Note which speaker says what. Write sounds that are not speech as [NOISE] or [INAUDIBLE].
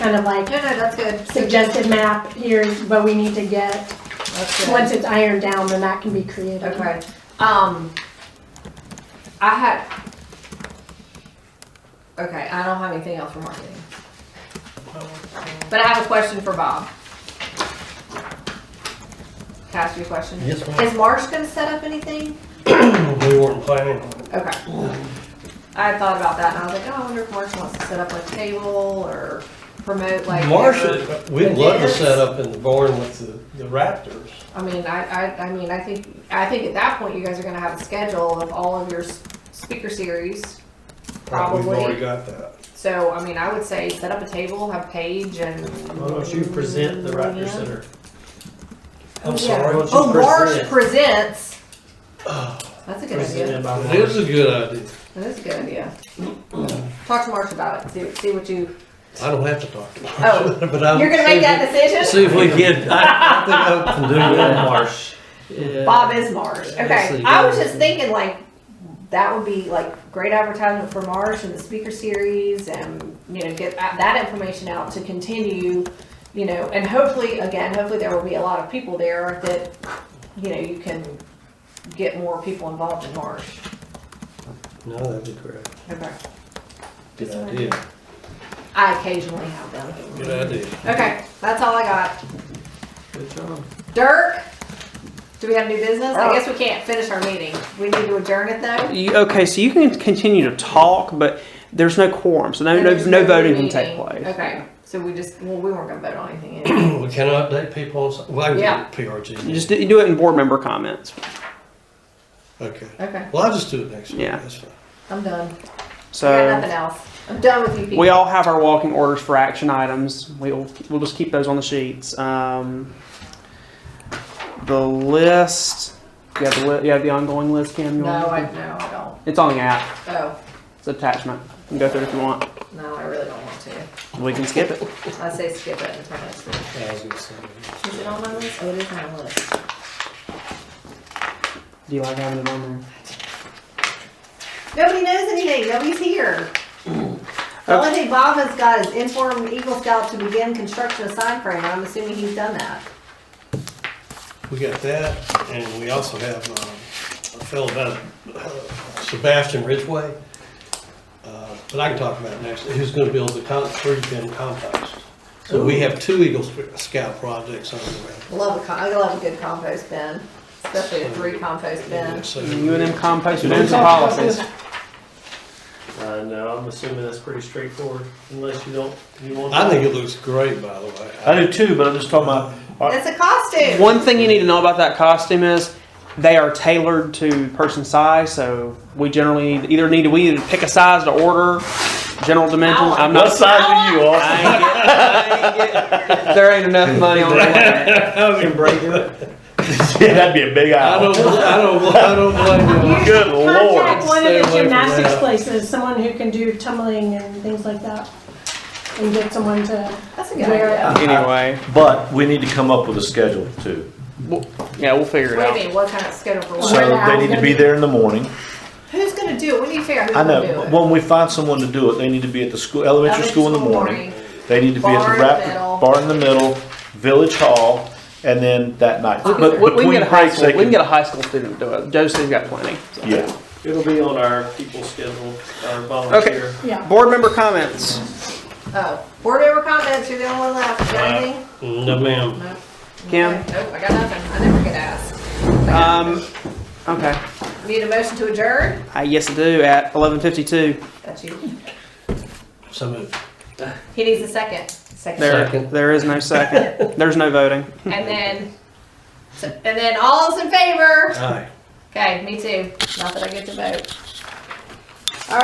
Speaker 1: kind of like
Speaker 2: No, no, that's good.
Speaker 1: suggested map, here's what we need to get.
Speaker 2: That's good.
Speaker 1: Once it's ironed down, then that can be created.
Speaker 2: Okay. Um, I had. Okay, I don't have anything else for marketing. But I have a question for Bob. Can I ask you a question?
Speaker 3: Yes, ma'am. [CLEARS THROAT]
Speaker 2: Is Marsh gonna set up anything?
Speaker 3: We weren't planning on it.
Speaker 2: Okay. I had thought about that and I was like, oh, I wonder if Marsh wants to set up like a table or promote like. uh, their-
Speaker 3: Marsha, we'd love to
Speaker 2: Yes.
Speaker 3: set up in the barn with the, the Raptors.
Speaker 2: I mean, I, I, I mean, I think, I think at that point, you guys are gonna have a schedule of all of your s- speaker series.
Speaker 3: We've already
Speaker 2: Probably,
Speaker 3: got that.
Speaker 2: so, I mean, I would say set up a table, have Paige and.
Speaker 4: Why don't you present the Raptor
Speaker 2: Yeah.
Speaker 4: Center?
Speaker 3: I'm
Speaker 2: Yeah.
Speaker 3: sorry.
Speaker 4: Why don't
Speaker 2: Oh,
Speaker 4: you
Speaker 2: Marsh
Speaker 4: present?
Speaker 2: presents, that's a good idea,
Speaker 4: Presented by
Speaker 3: It is
Speaker 4: Marsh.
Speaker 3: a good idea.
Speaker 2: that is a good idea. Talk to Marsh about it, see, see what you,
Speaker 3: I don't have to talk to
Speaker 2: Oh,
Speaker 3: Marsha, [LAUGHS] but I'm.
Speaker 2: you're gonna make that decision?
Speaker 3: See
Speaker 2: [LAUGHS]
Speaker 3: if we get, I, I think I can do
Speaker 4: Yeah,
Speaker 3: that.
Speaker 4: Marsh. Yeah.
Speaker 2: Bob is Marsh, okay,
Speaker 4: Actually,
Speaker 2: I was
Speaker 4: yeah.
Speaker 2: just thinking like, that would be like great advertisement for Marsh and the speaker series and, you know, get that- that information out to continue, you know, and hopefully, again, hopefully there will be a lot of people there that, you know, you can get more people involved in Marsh.
Speaker 3: [LAUGHS] No, that'd be great.
Speaker 2: Okay.
Speaker 3: Good idea,
Speaker 2: I occasionally have them.
Speaker 3: good idea.
Speaker 2: Okay, that's all I got.
Speaker 4: Good job.
Speaker 2: Dirk, do we have new business? I guess we can't finish our meeting. We need to adjourn it though.
Speaker 5: You- Okay, so you can continue to talk, but there's no quorum, so no, no, no voting can take place.
Speaker 2: Okay, so we just, well, we weren't gonna vote on anything.
Speaker 5: [COUGHS]
Speaker 2: anyway.
Speaker 3: [CLEARS THROAT] We can update people on, some- well, I can
Speaker 2: Yeah.
Speaker 3: get PRG.
Speaker 5: Just do do it in board member comments.
Speaker 3: Okay.
Speaker 2: Okay,
Speaker 3: Well, I'll just do it next week.
Speaker 5: Yeah.
Speaker 3: That's fine.
Speaker 2: I'm done. I got
Speaker 5: So
Speaker 2: nothing else. I'm done with you people.
Speaker 5: we all have our walking orders for action items. We'll, we'll just keep those on the sheets. Um, the list, you have the, li- you have the ongoing list, Cam? You
Speaker 2: No,
Speaker 5: want-
Speaker 2: I, no, I don't.
Speaker 5: It's on the app.
Speaker 2: Oh,
Speaker 5: It's attachment. You can go through it if you want.
Speaker 2: no, I really don't want to.
Speaker 5: We can skip it.
Speaker 2: I say skip it until next week.
Speaker 3: I was gonna say.
Speaker 2: Is it on my list? Oh, it is on my list.
Speaker 5: Do you like having it on there?
Speaker 2: Nobody knows anything. Nobody's
Speaker 5: [COUGHS]
Speaker 2: here. The only thing Bob has got is inform Eagle Scout to begin construction of sign frame. I'm assuming he's done that.
Speaker 3: We got that, and we also have um, a fellow down at uh, Sebastian Ridgway, uh, but I can talk about it next, who's gonna build the con- tree bin compost. So we have two Eagle Scout projects underway.
Speaker 2: Love a com- I love a good compost bin, especially a three compost bin.
Speaker 3: So-
Speaker 5: You and them compost, and some policies.
Speaker 4: Uh, no, I'm assuming that's pretty straightforward, unless you don't, you want.
Speaker 3: I think it looks great, by the way.
Speaker 6: I do too, but I'm just talking about,
Speaker 2: It's a costume.
Speaker 5: One thing you need to know about that costume is they are tailored to person size, so we generally need, either need to we either pick a size to order, general dimensions. I'm
Speaker 6: what
Speaker 5: not.
Speaker 6: size are you, Austin?
Speaker 5: I ain't get- there ain't enough money on [LAUGHS] it.
Speaker 4: Can break it.
Speaker 6: [LAUGHS] Yeah, that'd be a big
Speaker 3: I
Speaker 6: eye.
Speaker 3: don't, I don't, I don't blame you.
Speaker 6: Good
Speaker 1: Contact one of
Speaker 6: lord.
Speaker 3: Stay away
Speaker 1: the
Speaker 3: from
Speaker 1: gymnastics
Speaker 3: that.
Speaker 1: places, someone who can do tumbling and things like that. And get someone to,
Speaker 2: That's a good idea.
Speaker 5: Anyway,
Speaker 6: But we need to come up with a schedule too.
Speaker 5: yeah, we'll figure it
Speaker 2: What do
Speaker 5: out.
Speaker 2: you mean? What kind of schedule for what?
Speaker 1: Where the
Speaker 6: So they
Speaker 1: owl's
Speaker 6: need
Speaker 1: gonna
Speaker 6: to be
Speaker 1: be.
Speaker 6: there in the morning.
Speaker 2: Who's gonna do it? We need to figure out who's
Speaker 6: I know,
Speaker 2: gonna do it.
Speaker 6: but when we find someone to do it, they need to be at the school, elementary school in the morning. They need to be at
Speaker 2: Bar in
Speaker 6: the
Speaker 2: the
Speaker 6: rap,
Speaker 2: middle.
Speaker 6: bar in the middle, village hall, and then that night.
Speaker 2: We-
Speaker 5: But
Speaker 6: But
Speaker 5: we, we can
Speaker 6: between
Speaker 5: get a high
Speaker 6: breaks,
Speaker 5: school.
Speaker 6: they
Speaker 5: We can
Speaker 6: can,
Speaker 5: get a high school student to do it. Josie's got plenty. so.
Speaker 6: yeah.
Speaker 4: It'll be on our people schedule, our volunteer.
Speaker 1: yeah.
Speaker 5: Board member comments.
Speaker 2: Oh, board member comments. You're the only one left. You got
Speaker 3: Uh,
Speaker 2: anything?
Speaker 3: No, ma'am.
Speaker 2: No.
Speaker 5: Kim?
Speaker 2: Okay. Nope, I got nothing. I never get asked.
Speaker 5: Um, okay,
Speaker 2: Need a motion to adjourn?
Speaker 5: I yes I do at eleven fifty two.
Speaker 2: That's you.
Speaker 3: So moved.
Speaker 2: He needs a second. Second.
Speaker 5: There,
Speaker 3: Second.
Speaker 5: there is no second. There's no voting.
Speaker 2: And then, so- and then all's in favor.
Speaker 3: Aye.
Speaker 2: Okay, me too. Not that I get to vote.